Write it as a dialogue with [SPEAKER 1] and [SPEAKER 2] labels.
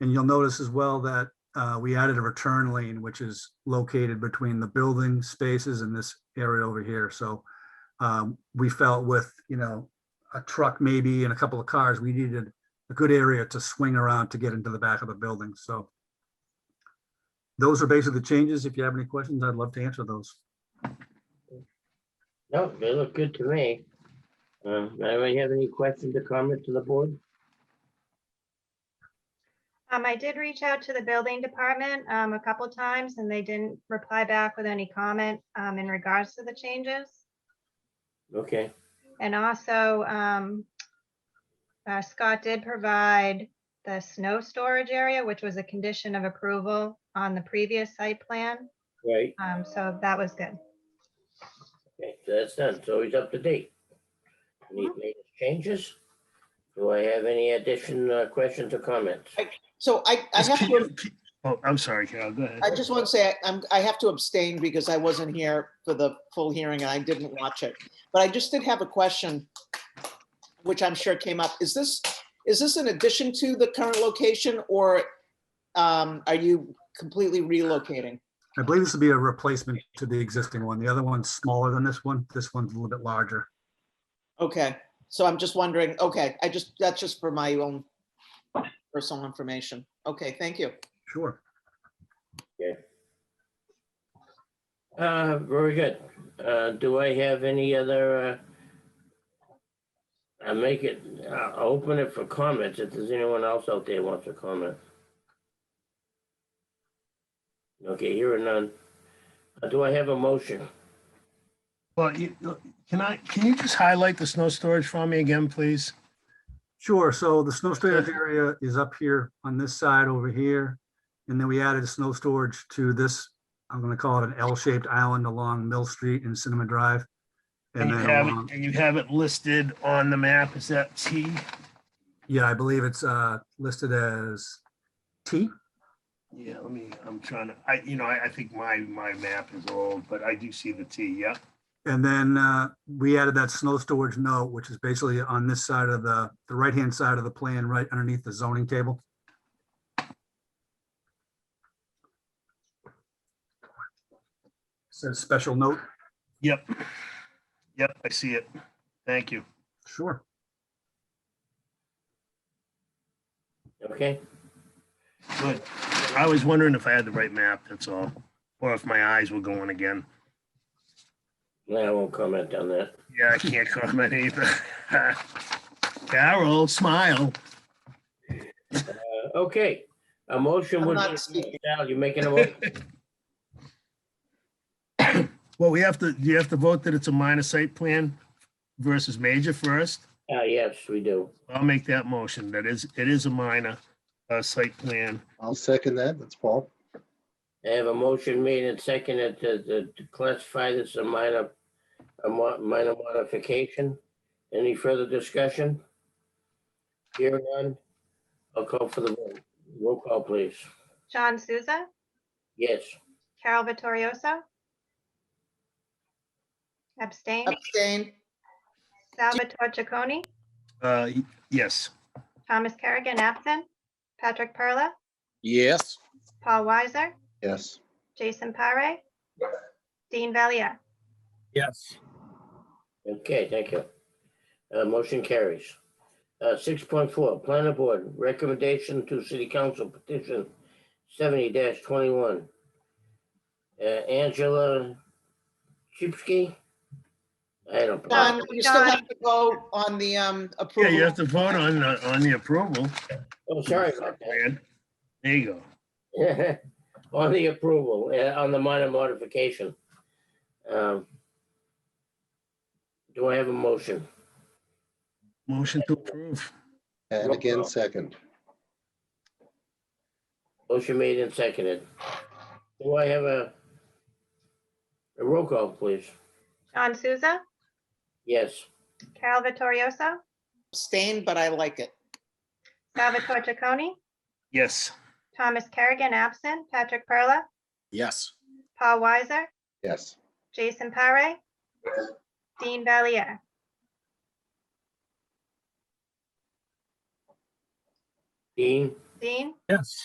[SPEAKER 1] And you'll notice as well that uh, we added a return lane, which is located between the building spaces and this area over here. So um, we felt with, you know, a truck maybe and a couple of cars, we needed a good area to swing around to get into the back of the building. So those are basically the changes. If you have any questions, I'd love to answer those.
[SPEAKER 2] No, they look good to me. Uh, anybody have any questions or comments to the board?
[SPEAKER 3] Um, I did reach out to the building department, um, a couple times and they didn't reply back with any comment, um, in regards to the changes.
[SPEAKER 2] Okay,
[SPEAKER 3] And also, um, uh, Scott did provide the snow storage area, which was a condition of approval on the previous site plan.
[SPEAKER 2] right,
[SPEAKER 3] Um, so that was good.
[SPEAKER 2] okay, so that's done, so he's up to date. Any major changes? Do I have any additional questions or comments?
[SPEAKER 4] So I, I
[SPEAKER 5] Just
[SPEAKER 4] have to,
[SPEAKER 5] keep- keep- Oh, I'm sorry, Carol, go ahead.
[SPEAKER 4] I just want to say, I'm, I have to abstain because I wasn't here for the full hearing and I didn't watch it. But I just did have a question, which I'm sure came up. Is this, is this in addition to the current location or um, are you completely relocating?
[SPEAKER 1] I believe this will be a replacement to the existing one. The other one's smaller than this one. This one's a little bit larger.
[SPEAKER 4] Okay, so I'm just wondering, okay, I just, that's just for my own personal information. Okay, thank you.
[SPEAKER 1] Sure.
[SPEAKER 2] Uh, very good. Uh, do I have any other, uh, I make it, i open it for comments if there's anyone else out there wants to comment. Okay, here are none. Uh, Do I have a motion?
[SPEAKER 5] Well, you, can I, can you just highlight the snow storage for me again, please?
[SPEAKER 1] Sure. So the snow storage area is up here on this side over here. And then we added snow storage to this, I'm going to call it an L-shaped island along Mill Street and Cinema Drive.
[SPEAKER 5] And
[SPEAKER 1] And
[SPEAKER 5] you
[SPEAKER 1] then,
[SPEAKER 5] have
[SPEAKER 1] along-
[SPEAKER 5] it, and you have it listed on the map, is that T?
[SPEAKER 1] yeah, I believe it's uh, listed as T.
[SPEAKER 5] Yeah, let me, I'm trying to, I, you know, I, I think my, my map is old, but I do see the T, yeah.
[SPEAKER 1] And then uh, we added that snow storage note, which is basically on this side of the, the right-hand side of the plan, right underneath the zoning table. Says special note.
[SPEAKER 5] Yep. Yep, I see it. Thank you.
[SPEAKER 1] Sure.
[SPEAKER 2] Okay,
[SPEAKER 5] Good. I was wondering if I had the right map, that's all, or if my eyes were going again.
[SPEAKER 2] No, I won't comment on that.
[SPEAKER 5] Yeah, I can't comment either. Carol, smile.
[SPEAKER 2] Uh, Okay, a motion
[SPEAKER 4] I'm
[SPEAKER 2] would.
[SPEAKER 4] not speaking.
[SPEAKER 2] Al, you making a motion?
[SPEAKER 5] Well, we have to, you have to vote that it's a minor site plan versus major first.
[SPEAKER 2] Uh, yes, we do.
[SPEAKER 5] I'll make that motion. That is, it is a minor uh, site plan.
[SPEAKER 6] I'll second that. That's Paul.
[SPEAKER 2] I have a motion made and seconded to, to to classify this a minor, a mo- minor modification. Any further discussion? Here none. I'll call for the vote. Roll call, please.
[SPEAKER 3] John Souza,
[SPEAKER 2] Yes.
[SPEAKER 3] Carol Vittorioso. Abstain,
[SPEAKER 4] Abstain?
[SPEAKER 3] Salvatore Chaconi,
[SPEAKER 5] Uh, Yes,
[SPEAKER 3] Thomas Kerrigan, absent, Patrick Perla,
[SPEAKER 7] Yes,
[SPEAKER 3] Paul Weiser,
[SPEAKER 6] Yes.
[SPEAKER 3] Jason Pare, Dean Valier.
[SPEAKER 7] yes,
[SPEAKER 2] Okay, thank you. Uh, motion carries. Uh, six point four, planning board recommendation to city council petition seventy twenty-one. Uh, Angela Chipsky? I don't.
[SPEAKER 4] Don,
[SPEAKER 2] pronounce-
[SPEAKER 4] you still have to go on the um,
[SPEAKER 5] yeah,
[SPEAKER 4] approval.
[SPEAKER 5] you have to vote on, uh, on the approval.
[SPEAKER 2] Oh, sorry about that.
[SPEAKER 5] There you go.
[SPEAKER 2] On the approval, uh, on the minor modification. Um, Do I have a motion?
[SPEAKER 5] Motion to approve.
[SPEAKER 6] And
[SPEAKER 2] Roll
[SPEAKER 6] again,
[SPEAKER 2] call.
[SPEAKER 6] second.
[SPEAKER 2] Motion made and seconded. Do I have a a roll call, please?
[SPEAKER 3] John Souza,
[SPEAKER 2] Yes.
[SPEAKER 3] Carol Vittorioso,
[SPEAKER 4] Abstain, but I like it.
[SPEAKER 3] Salvatore Chaconi,
[SPEAKER 5] Yes.
[SPEAKER 3] Thomas Kerrigan, absent, Patrick Perla,
[SPEAKER 7] yes.
[SPEAKER 3] Paul Weiser,
[SPEAKER 6] Yes.
[SPEAKER 3] Jason Pare, Dean Valier.
[SPEAKER 2] Dean?
[SPEAKER 8] Dean?
[SPEAKER 3] Yes.